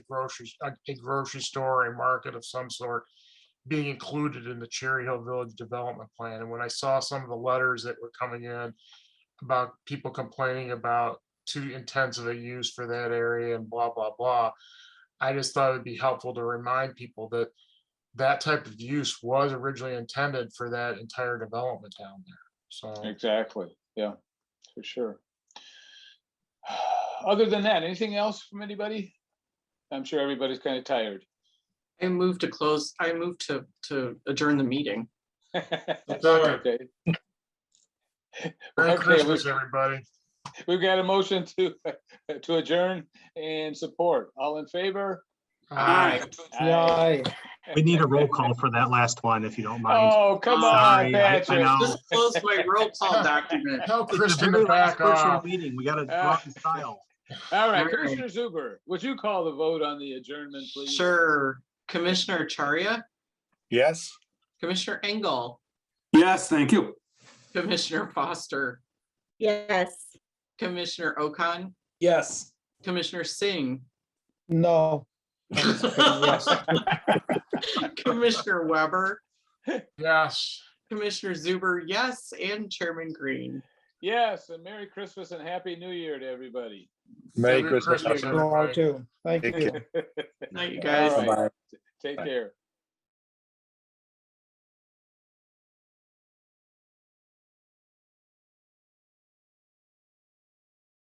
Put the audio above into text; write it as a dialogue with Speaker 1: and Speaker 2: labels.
Speaker 1: grocery, a a grocery store, a market of some sort being included in the Cherry Hill Village Development Plan. And when I saw some of the letters that were coming in about people complaining about too intensive a use for that area and blah, blah, blah, I just thought it'd be helpful to remind people that that type of use was originally intended for that entire development down there. So
Speaker 2: Exactly, yeah, for sure. Other than that, anything else from anybody? I'm sure everybody's kind of tired.
Speaker 3: I move to close, I move to, to adjourn the meeting.
Speaker 1: Second.
Speaker 2: Okay.
Speaker 1: Merry
Speaker 2: Okay,
Speaker 1: Christmas, everybody.
Speaker 2: We've got a motion to, to adjourn and support. All in favor?
Speaker 3: Aye.
Speaker 2: Aye.
Speaker 4: We need a roll call for that last one, if you don't mind.
Speaker 2: Oh, come on,
Speaker 4: Sorry, I- I
Speaker 2: Patrick.
Speaker 4: know.
Speaker 3: Just close my roll call document.
Speaker 1: Tell
Speaker 4: It's the
Speaker 1: Kristen
Speaker 4: very
Speaker 1: to
Speaker 4: last
Speaker 1: back
Speaker 4: virtual
Speaker 1: off. Uh,
Speaker 4: Meeting, we gotta go out in style.
Speaker 2: All right,
Speaker 3: All right.
Speaker 2: Commissioner Zuber, would you call the vote on the adjournment, please?
Speaker 3: Sure. Commissioner Charia,
Speaker 5: Yes.
Speaker 3: Commissioner Engel,
Speaker 5: Yes, thank you.
Speaker 3: Commissioner Foster,
Speaker 6: Yes.
Speaker 3: Commissioner Okan,
Speaker 5: Yes.
Speaker 3: Commissioner Singh,
Speaker 5: No.
Speaker 3: Commissioner Weber,
Speaker 1: Yes.
Speaker 3: Commissioner Zuber, yes, and Chairman Green.
Speaker 2: Yes, and Merry Christmas and Happy New Year to everybody.
Speaker 1: Merry Christmas. everybody.
Speaker 5: too. Thank
Speaker 7: Take
Speaker 5: you.
Speaker 7: care.
Speaker 3: Night, you
Speaker 2: All
Speaker 3: guys.
Speaker 2: right. Take
Speaker 7: Bye.
Speaker 2: care.